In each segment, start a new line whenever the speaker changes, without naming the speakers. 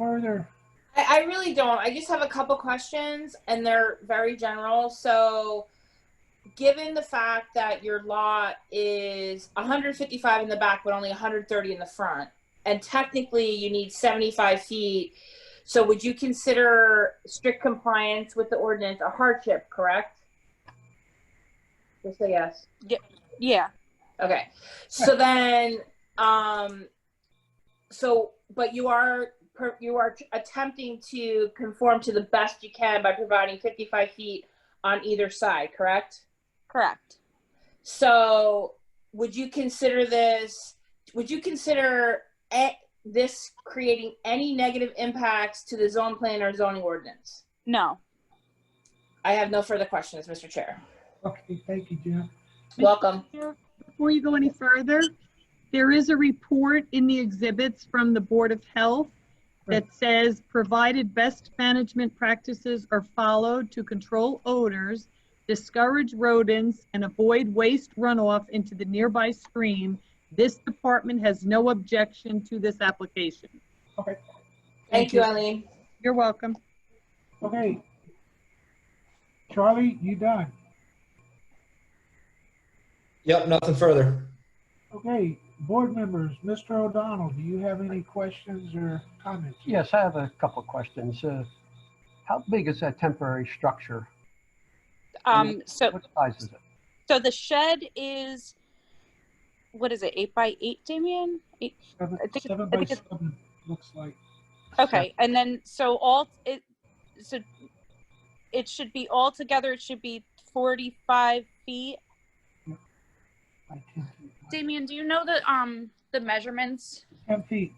further?
I, I really don't. I just have a couple questions, and they're very general. So, given the fact that your lot is 155 in the back, but only 130 in the front, and technically you need 75 feet, so would you consider strict compliance with the ordinance a hardship? Correct. Just say yes.
Yeah.
Okay. So then, um, so, but you are, per- you are attempting to conform to the best you can by providing 55 feet on either side, correct?
Correct.
So would you consider this, would you consider a- this creating any negative impacts to the zone plan or zoning ordinance?
No.
I have no further questions, Mr. Chair.
Okay, thank you, Jeff.
Welcome.
Before you go any further, there is a report in the exhibits from the Board of Health that says, provided best management practices are followed to control odors, discourage rodents, and avoid waste runoff into the nearby stream, this department has no objection to this application.
Thank you, Eileen.
You're welcome.
Okay. Charlie, you done.
Yep, nothing further.
Okay, board members, Mr. O'Donnell, do you have any questions or comments?
Yes, I have a couple of questions. Uh, How big is that temporary structure?
Um, so,
What size is it?
so the shed is, what is it, eight by eight, Damien? Eight,
Seven
I think-
seven
I
by
think it's-
seven, looks like.
okay. And then, so all, it, so it should be all together, it should be 45 feet.
by 10 feet.
Damien, do you know the, um, the measurements?
10 feet.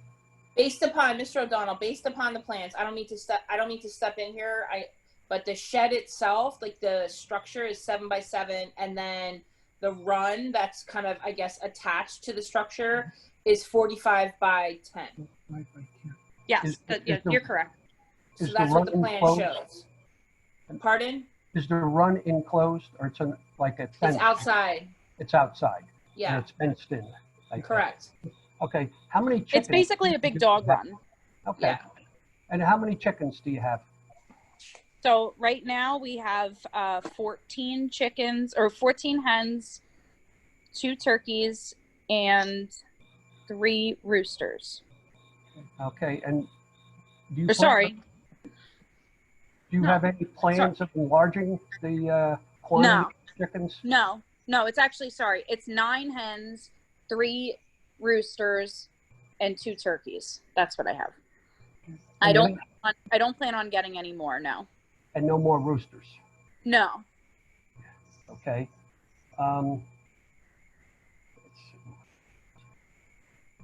Based upon, Mr. O'Donnell, based upon the plans, I don't mean to step, I don't mean to step in here, I, but the shed itself, like the structure is seven by seven, and then the run that's kind of, I guess, attached to the structure is forty-five by ten.
Five by 10.
Yes,
Is-
that-
is the-
correct.
So
Is the
that's what the
run
plan
enclosed?
shows. Pardon?
Is the run enclosed or it's an- like a
It's
fence?
outside,
It's outside? And
yeah,
it's fenced in? like that.
correct.
Okay, how many chickens?
It's basically a big dog run.
Okay.
Yeah.
And how many chickens do you have?
So right now we have uh, 14 chickens or 14 hens, two turkeys, and three roosters.
Okay, and do you?
Or
plan-
Uh, sorry,
Do you
no.
have any plans of enlarging the uh,
No.
quantity of chickens?
no, no, it's actually sorry. It's nine hens, three roosters, and two turkeys. That's what I have. I
And
don't.
no-
plan- I don't plan on getting any more. No,
And no more roosters?
no.
Okay. Um, let's see.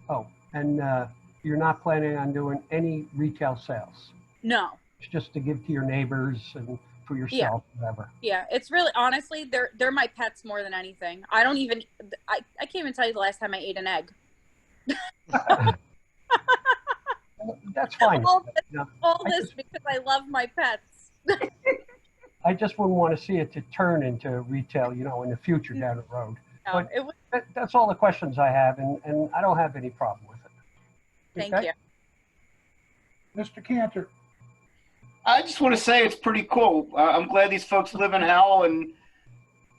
oh, and uh, you're not planning on doing any retail sales?
No.
It's just to give to your neighbors and for yourself, whatever.
Yeah, it's really honestly they're they're my pets more than anything. I don't even I, I can't even tell you the last time I ate an egg.
That's fine.
All this,
No,
all
I
this because I love my pets.
I just wouldn't want to see it to turn into retail, you know, in the future down the road.
No,
But-
it was,
That, that's all the questions I have, and, and I don't have any problem with it.
thank
Okay?
you.
Mr. Cantor,
I just want to say it's pretty cool. Uh, I'm glad these folks live in hell, and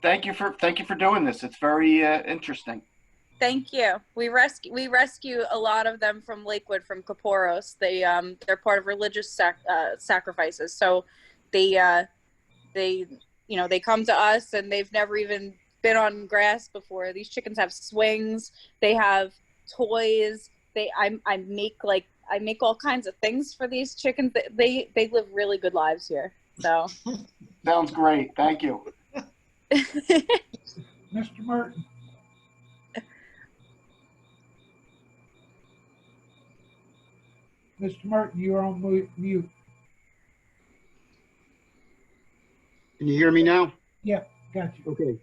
thank you for thank you for doing this. It's very uh, interesting.
Thank you. We rescue we rescue a lot of them from Lakewood from Kaporos. They um they're part of religious sac- uh, sacrifices. So they uh they you know they come to us and they've never even been on grass before. These chickens have swings. They have toys. They I I make like I make all kinds of things for these chickens. They they, they live really good lives here. So
Sounds great. Thank you.
Mr. Merton, Mr. Merton, you're on mu- mute.
Can you hear me now?
Got you.
Okay.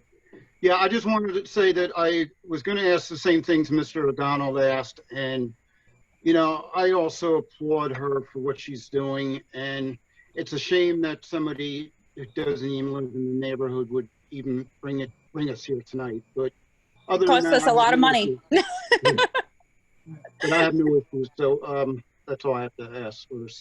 Yeah, I just wanted to say that I was going to ask the same things Mr. O'Donnell asked, and, you know, I also applaud her for what she's doing, and it's a shame that somebody that doesn't even live in the neighborhood would even bring it, bring us here tonight, but other than
Cost
that,
us a
I have
lot of
no
money.
issues. But I have no issues, so, um, That's all I have to ask or say.